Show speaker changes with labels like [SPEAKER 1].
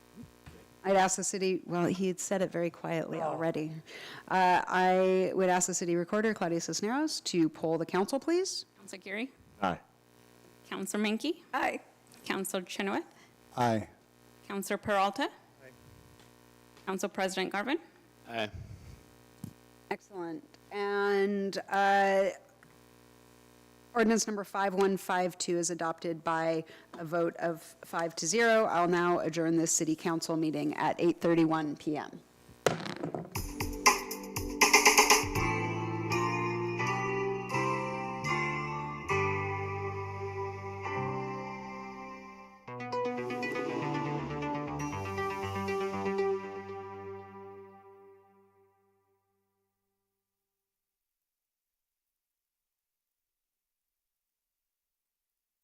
[SPEAKER 1] I'd ask the city, well, he had said it very quietly already. Uh, I would ask the city recorder, Claudia Cisneros, to poll the council, please.
[SPEAKER 2] Counselor Geary,
[SPEAKER 3] Aye.
[SPEAKER 2] Counselor Menke,
[SPEAKER 4] Aye.
[SPEAKER 2] Counselor Chenoweth,
[SPEAKER 3] Aye.
[SPEAKER 2] Counselor Peralta, Council President Garvin,
[SPEAKER 5] Aye.
[SPEAKER 1] Excellent. And uh, ordinance number 5152 is adopted by a vote of five to zero. I'll now adjourn this city council meeting at 8:31 PM.